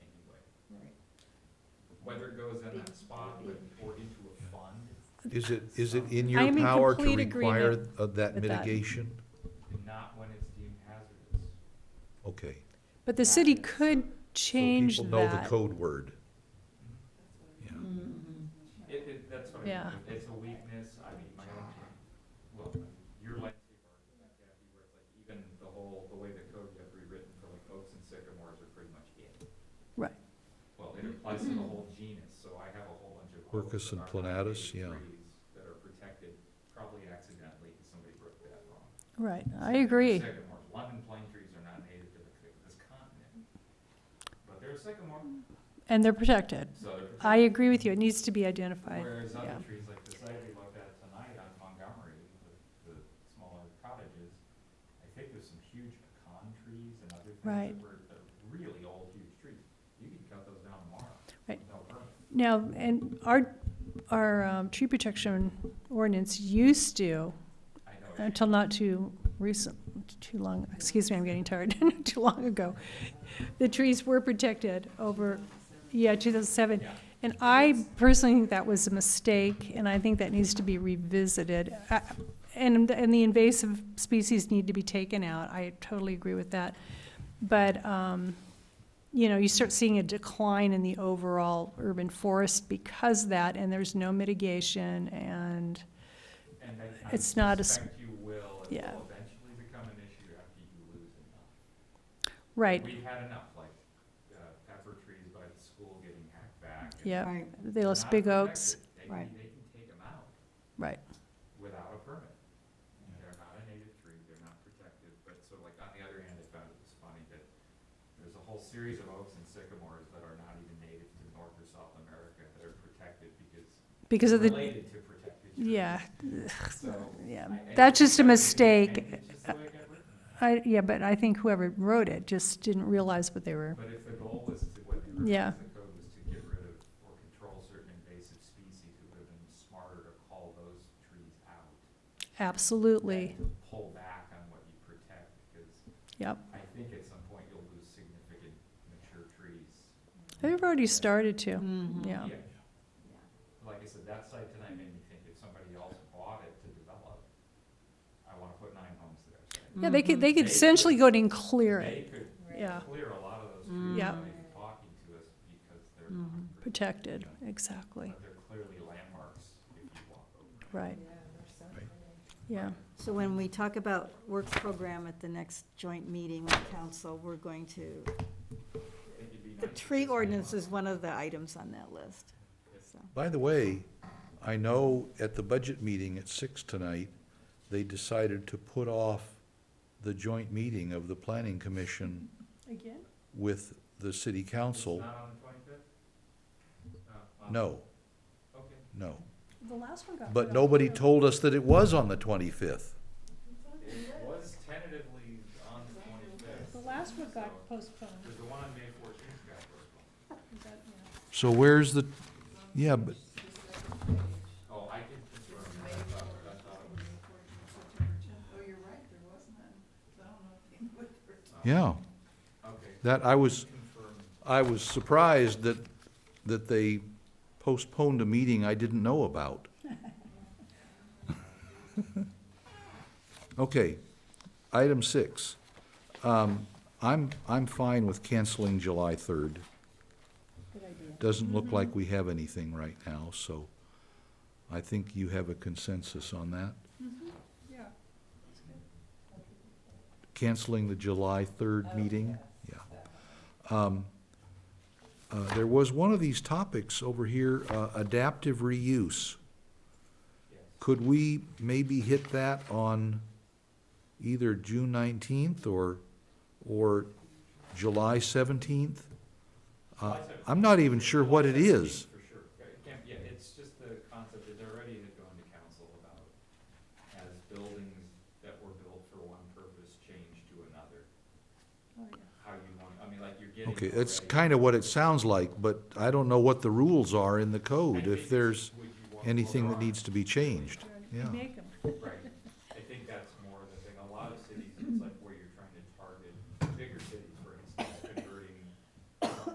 whether it goes in that spot with, or into a fund, Is it, is it in I your am in power to complete require agreement of that with that. mitigation? and not when it's deemed hazardous. Okay. But the city could change So people know the that. code word. Yeah. It, it, that's what I Yeah. mean, it's a weakness, I mean, my own, well, your landscape architect, Kathy, where it's like even the whole, the way the code got rewritten for like oaks and sycamores are pretty much it. Right. Well, it applies to the whole genus, so I have a whole bunch of. oaks Quercus that and are not native planatus, yeah. trees That are protected, probably accidentally, because somebody wrote that wrong. Right, I agree. Sycamores, London pine trees are not native to the- this continent, but they're a sycamore, And they're protected. so they're protected. I agree with you. It needs to be identified. Whereas yeah. other trees, like the site we looked at tonight on Montgomery, the, the smaller cottages, I think there's some huge pecan trees and other things Right. that were, that are really old, huge trees. You can cut those down tomorrow. Right. with No permit. Now, and our, our um, tree protection ordinance used to, I know. it- until not too recent, too long, excuse me, I'm getting tired, not too long ago, the trees were protected over, yeah, 2007. Yeah. And I personally think that was a mistake, and I think that needs to be revisited. Uh, And, and the invasive species need to be taken out, I totally agree with that. But, um, you know, you start seeing a decline in the overall urban forest because of that, and there's no mitigation, and, And I- I it's not a s- suspect you will, it yeah. will eventually become an issue after you lose enough. right, We've had enough, like, uh, pepper trees by the school getting hacked back. and yeah, Right, they lost not big oaks, protected. They Right. can, they can take them out. right, without a permit. They're not a native tree, they're not protected, but so like on the other hand, I found it was funny that there's a whole series of oaks and sycamores that are not even native to North or South America that are protected because because of the, related to protected trees. yeah, So. yeah. I- I That's think just that's the a thing, mistake. and it's just the way it got written. I, yeah, but I think whoever wrote it just didn't realize what they were, But if the goal was to, what they Yeah. revised the code was to get rid of or control certain invasive species, it would have been smarter to call those trees out. absolutely, than to Pull back on what you protect because yep. I think at some point you'll lose significant mature trees. They've already started to, Mhm. yeah, Like I said, that site tonight made me think if somebody else bought it to develop, I wanna put nine homes there. so yeah, they Mm-hmm. could, they Mhm. could essentially go in and clear They it, could yeah, clear a lot of those Mm. trees Yeah. that they're talking to us because they're not. protected, protected, exactly, But they're clearly landmarks if you walk over. right, yeah. So when we talk about work program at the next joint meeting with council, we're going to, It'd be the nice if tree this came ordinance up. is one of the items on that list. So, By the way, I know at the budget meeting at six tonight, they decided to put off the joint meeting of the planning commission Again? with the city It's council. not on the twenty-fifth? Uh, No, Okay. no. The last one got. But nobody told us that it was on the twenty-fifth. It was tentatively on the twenty-fifth. The last one got postponed. Because the one on May fourteenth got postponed. So where's the, yeah, but Oh, I can confirm that, I thought, I thought it was, Yeah, okay, that, I was, confirmed. I was surprised that, that they postponed a meeting I didn't know about. Okay, item six. Um, I'm, I'm fine with canceling July third. Doesn't look like we have anything right now, so I think you have a consensus on that. Yeah. canceling the July Oh, 3rd meeting? Yeah. Um, uh, There was one of these topics over here, uh, adaptive reuse. Could we maybe hit that on either June 19th or, or July 17th? Uh, I'm not even sure what it is. For sure, Right, it can't- yeah, it's just the concept, that they're already had gone to council about as buildings that were built for one purpose change to another, Oh, how you want, I mean, like you're getting. Okay, that's already- kind of what it sounds like, but I don't know what the rules are in the I code, think if it's there's what you want- well, anything there that are, needs to be changed. Yeah. Make 'em. Right,